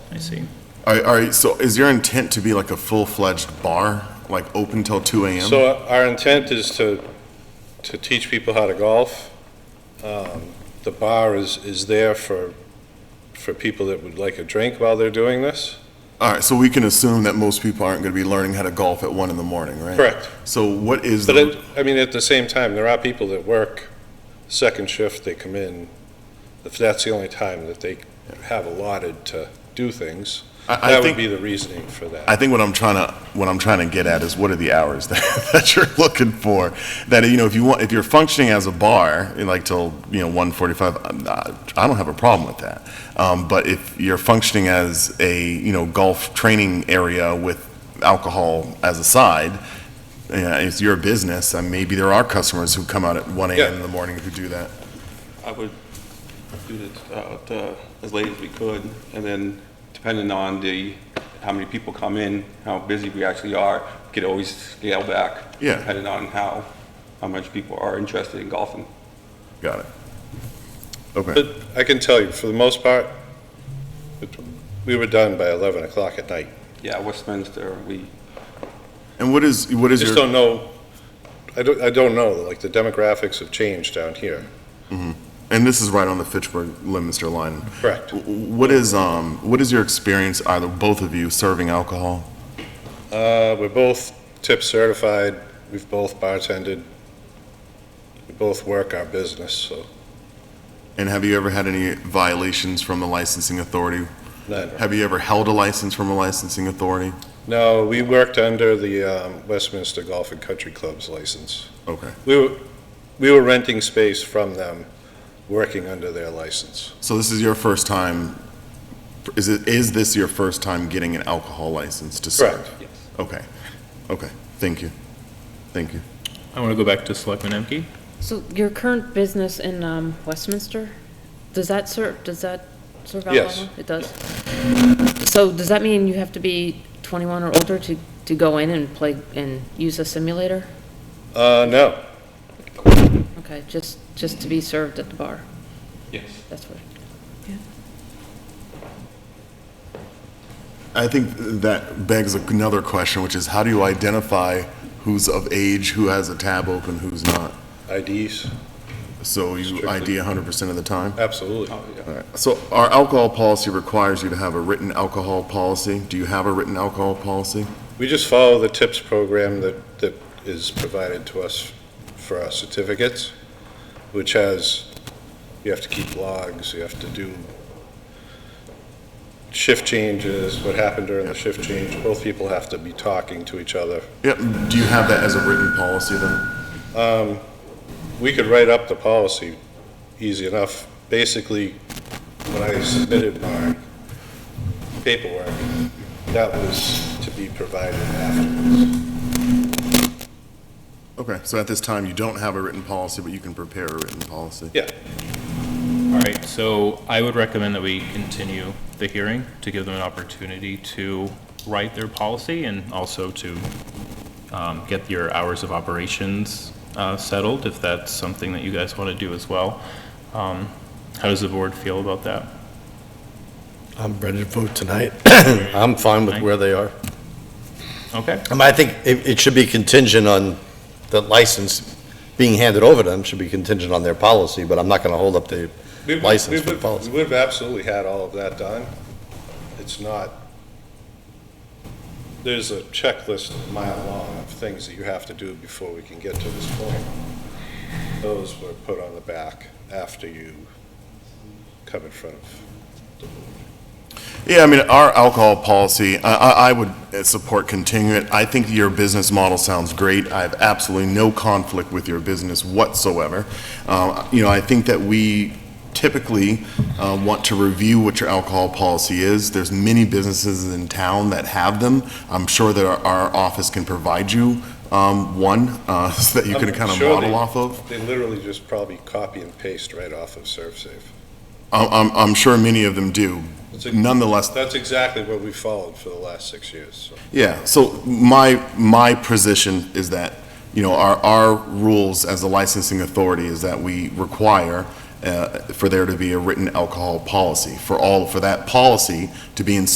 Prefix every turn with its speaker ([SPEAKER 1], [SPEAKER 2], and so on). [SPEAKER 1] I see.
[SPEAKER 2] All right, all right, so is your intent to be like a full-fledged bar, like open till two AM?
[SPEAKER 3] So our intent is to, to teach people how to golf. Um, The bar is, is there for, for people that would like a drink while they're doing this.
[SPEAKER 2] All right, so we can assume that most people aren't gonna be learning how to golf at one in the morning, right?
[SPEAKER 3] Correct.
[SPEAKER 2] So what is
[SPEAKER 3] But it,
[SPEAKER 2] the,
[SPEAKER 3] I mean, at the same time, there are people that work second shift, they come in, if that's the only time that they have allotted to do things,
[SPEAKER 2] I, I
[SPEAKER 3] that would be
[SPEAKER 2] think,
[SPEAKER 3] the reasoning for that.
[SPEAKER 2] I think what I'm trying to, what I'm trying to get at is what are the hours that, that you're looking for? That, you know, if you want, if you're functioning as a bar, like till, you know, one forty-five, I don't have a problem with that. Um, but if you're functioning as a, you know, golf training area with alcohol as a side, yeah, it's your business, and maybe there are customers who come out at one AM in
[SPEAKER 3] Yeah.
[SPEAKER 2] the morning who do that.
[SPEAKER 4] I would do it uh, to as late as we could, and then depending on the, how many people come in, how busy we actually are, we could always scale back.
[SPEAKER 2] Yeah.
[SPEAKER 4] Depending on how, how much people are interested in golfing.
[SPEAKER 2] Got it. Okay,
[SPEAKER 3] But I can tell you, for the most part, it- we were done by 11 o'clock at night.
[SPEAKER 4] Yeah, Westminster, we,
[SPEAKER 2] and what is, what is
[SPEAKER 3] Just
[SPEAKER 2] your,
[SPEAKER 3] don't know, I don't, I don't know, like, the demographics have changed down here.
[SPEAKER 2] and this is right on the Fitchburg-Leominster line.
[SPEAKER 3] Correct.
[SPEAKER 2] W- What is, um, what is your experience, either both of you, serving alcohol?
[SPEAKER 3] Uh, we're both tip certified, we've both bartended, we both work our business, so,
[SPEAKER 2] And have you ever had any violations from the licensing authority?
[SPEAKER 3] none.
[SPEAKER 2] Have you ever held a license from a licensing authority?
[SPEAKER 3] No, we worked under the um, Westminster Golf and Country Club's license.
[SPEAKER 2] Okay,
[SPEAKER 3] We were, we were renting space from them, working under their license.
[SPEAKER 2] so this is your first time, is it, is this your first time getting an alcohol license to serve?
[SPEAKER 3] Correct.
[SPEAKER 4] yes.
[SPEAKER 2] Okay, okay, thank you, thank you.
[SPEAKER 1] I want to go back to Selectman Emke.
[SPEAKER 5] So your current business in um, Westminster, does that serve, does that serve alcohol?
[SPEAKER 3] Yes.
[SPEAKER 5] It does? So does that mean you have to be 21 or older to, to go in and play, and use a simulator?
[SPEAKER 3] Uh, no,
[SPEAKER 5] Okay, just, just to be served at the bar,
[SPEAKER 4] Yes.
[SPEAKER 5] that's what.
[SPEAKER 2] I think that begs another question, which is how do you identify who's of age, who has a tab open, who's not?
[SPEAKER 3] IDs,
[SPEAKER 2] So you ID 100% of the time?
[SPEAKER 3] absolutely.
[SPEAKER 4] Oh, yeah.
[SPEAKER 2] All right. So our alcohol policy requires you to have a written alcohol policy. Do you have a written alcohol policy?
[SPEAKER 3] We just follow the tips program that, that is provided to us for our certificates, which has, you have to keep logs, you have to do shift changes, what happened during the shift change. Both people have to be talking to each other.
[SPEAKER 2] Yep. Do you have that as a written policy then?
[SPEAKER 3] We could write up the policy easy enough. Basically, when I submitted my paperwork, that was to be provided afterwards.
[SPEAKER 2] Okay. So at this time, you don't have a written policy, but you can prepare a written policy.
[SPEAKER 3] Yeah,
[SPEAKER 1] All right, so I would recommend that we continue the hearing to give them an opportunity to write their policy and also to um, get your hours of operations uh, settled, if that's something that you guys want to do as well. Um, How does the board feel about that?
[SPEAKER 6] I'm ready to vote tonight. I'm fine with where they are.
[SPEAKER 1] Okay,
[SPEAKER 6] I mean, I think it, it should be contingent on the license being handed over to them, should be contingent on their policy, but I'm not gonna hold up the,
[SPEAKER 3] We would- we
[SPEAKER 6] License for
[SPEAKER 3] would-
[SPEAKER 6] policy.
[SPEAKER 3] We would have absolutely had all of that done. It's not, there's a checklist a mile long of things that you have to do before we can get to this point. Those were put on the back after you come in front of.
[SPEAKER 2] Yeah, I mean, our alcohol policy, I, I, I would uh, support continuing it. I think your business model sounds great. I have absolutely no conflict with your business whatsoever. Uh, you know, I think that we typically, uh, want to review what your alcohol policy is. There's many businesses in town that have them. I'm sure that our, our office can provide you, um, one, uh, so that you can
[SPEAKER 3] I'm
[SPEAKER 2] kind of
[SPEAKER 3] sure
[SPEAKER 2] model
[SPEAKER 3] they-
[SPEAKER 2] off of.
[SPEAKER 3] They literally just probably copy and paste right off of ServSafe.
[SPEAKER 2] I'm, Um, I'm, I'm sure many of them do.
[SPEAKER 3] It's a-
[SPEAKER 2] Nonetheless,
[SPEAKER 3] That's exactly what we followed for the last six years, so.
[SPEAKER 2] Yeah, so my, my position is that, you know, our, our rules as a licensing authority is that we require uh, for there to be a written alcohol policy, for all, for that policy to be in